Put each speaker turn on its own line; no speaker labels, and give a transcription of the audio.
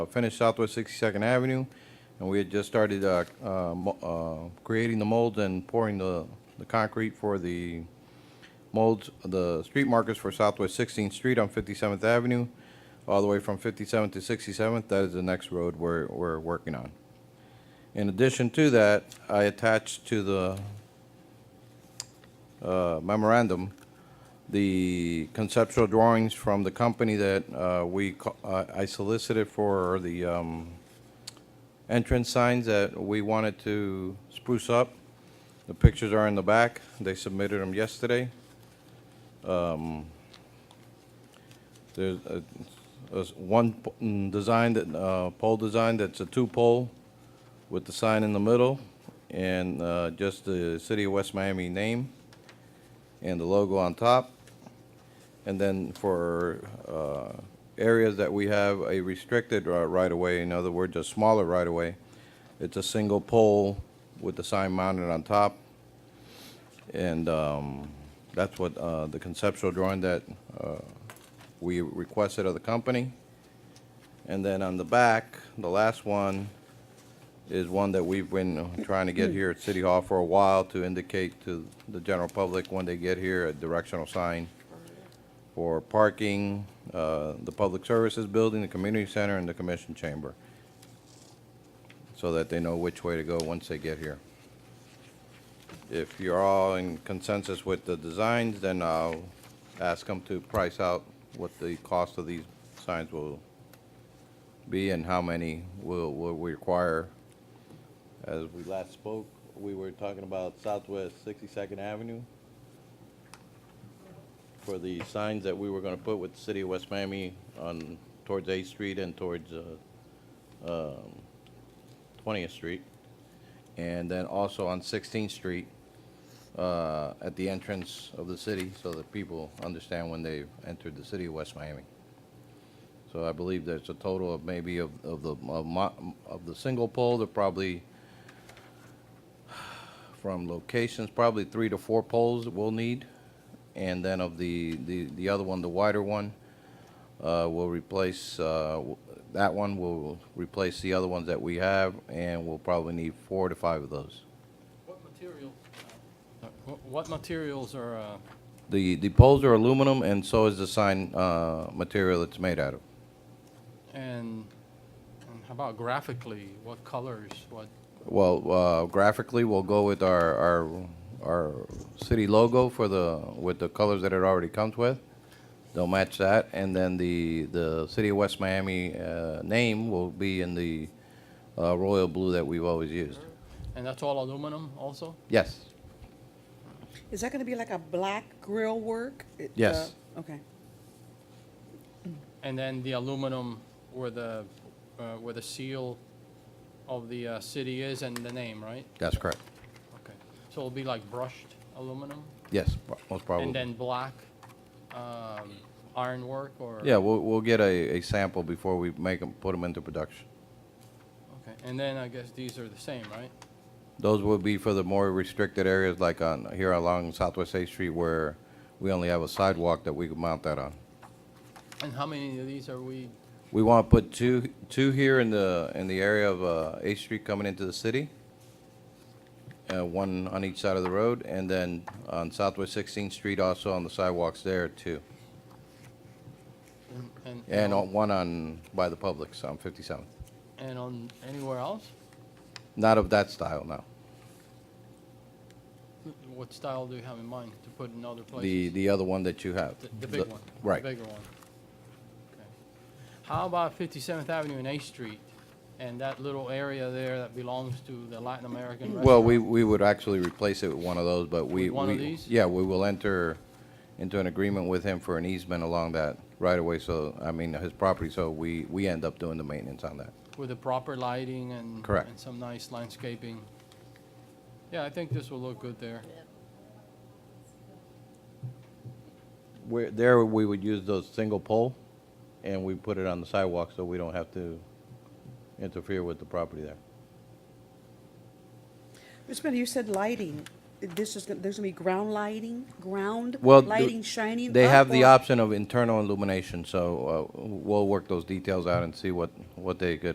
Uh, finished Southwest 62nd Avenue, and we had just started uh, uh, mo- uh, creating the molds and pouring the the concrete for the molds, the street markers for Southwest 16th Street on 57th Avenue, all the way from 57th to 67th. That is the next road we're we're working on. In addition to that, I attached to the uh, memorandum the conceptual drawings from the company that uh, we, co- uh, I solicited for the um, entrance signs that we wanted to spruce up. The pictures are in the back. They submitted them yesterday. Um, There's a, there's one p- mm, design that, uh, pole design that's a two-pole with the sign in the middle and, uh, just the City of West Miami name and the logo on top. And then for, uh, areas that we have a restricted uh, ri- right-of-way, in other words, a smaller right-of-way, it's a single pole with the sign mounted on top. And, um, that's what, uh, the conceptual drawing that, uh, we requested of the company. And then on the back, the last one is one that we've been uh, trying to get here at City Hall for a while to indicate to the general public when they get here, a directional sign for parking, uh, the Public Services Building, the Community Center, and the Commission Chamber, so that they know which way to go once they get here. If you're all in consensus with the designs, then I'll ask them to price out what the cost of these signs will be and how many will, will we require. As we last spoke, we were talking about Southwest 62nd Avenue for the signs that we were gonna put with the city of West Miami on, towards 8th Street and towards, uh, um, 20th Street. And then also on 16th Street, uh, at the entrance of the city, so that people understand when they entered the city of West Miami. So I believe there's a total of maybe of, of the, of mo- of the single pole, there probably, from locations, probably three to four poles that we'll need. And then of the, the, the other one, the wider one, uh, we'll replace, uh, w- that one will replace the other ones that we have, and we'll probably need four to five of those.
What material, uh, wh- what materials are, uh,
The, the poles are aluminum, and so is the sign, uh, material it's made out of.
and and how about graphically, what colors, what,
Well, uh, graphically, we'll go with our, our, our city logo for the, with the colors that it already comes with. They'll match that, and then the, the City of West Miami, uh, name will be in the, uh, royal blue that we've always used.
and that's all aluminum also?
Yes,
Is that gonna be like a black grill work? It, uh,
Yes.
Okay.
And then the aluminum where the, uh, where the seal of the uh, city is and the name, right?
that's correct.
Okay, so it'll be like brushed aluminum?
Yes, most probably.
And then black um, ironwork or?
Yeah, we'll, we'll get a, a sample before we make them, put them into production.
Okay, and then I guess these are the same, right?
Those will be for the more restricted areas, like on, here along Southwest Eighth Street, where we only have a sidewalk that we could mount that on.
And how many of these are we,
We want to put two, two here in the, in the area of uh, Eighth Street coming into the city, uh, one on each side of the road, and then on Southwest 16th Street also on the sidewalks there, too.
and- and?
And
all.
on- one on, by the Publix on 57th.
And on anywhere else?
Not of that style, no.
What style do you have in mind to put in other places?
The, the other one that you have.
The- the big one?
Right.
The bigger one? Okay. How about 57th Avenue and A Street and that little area there that belongs to the Latin American restaurant?
Well, we, we would actually replace it with one of those, but we.
With one of
we-
these?
Yeah, we will enter into an agreement with him for an easement along that right away. so, I mean, his property, so we, we end up doing the maintenance on that.
With the proper lighting and.
Correct.
And some nice landscaping. Yeah, I think this will look good there.
Where, there, we would use those single pole, and we put it on the sidewalk, so we don't have to interfere with the property there.
Ms. Miller, you said lighting. this is, gonna- there's gonna be ground lighting, ground
Well, the-
lighting shining?
They
up
have the
or-
option of internal illumination, so uh, we'll work those details out and see what, what they could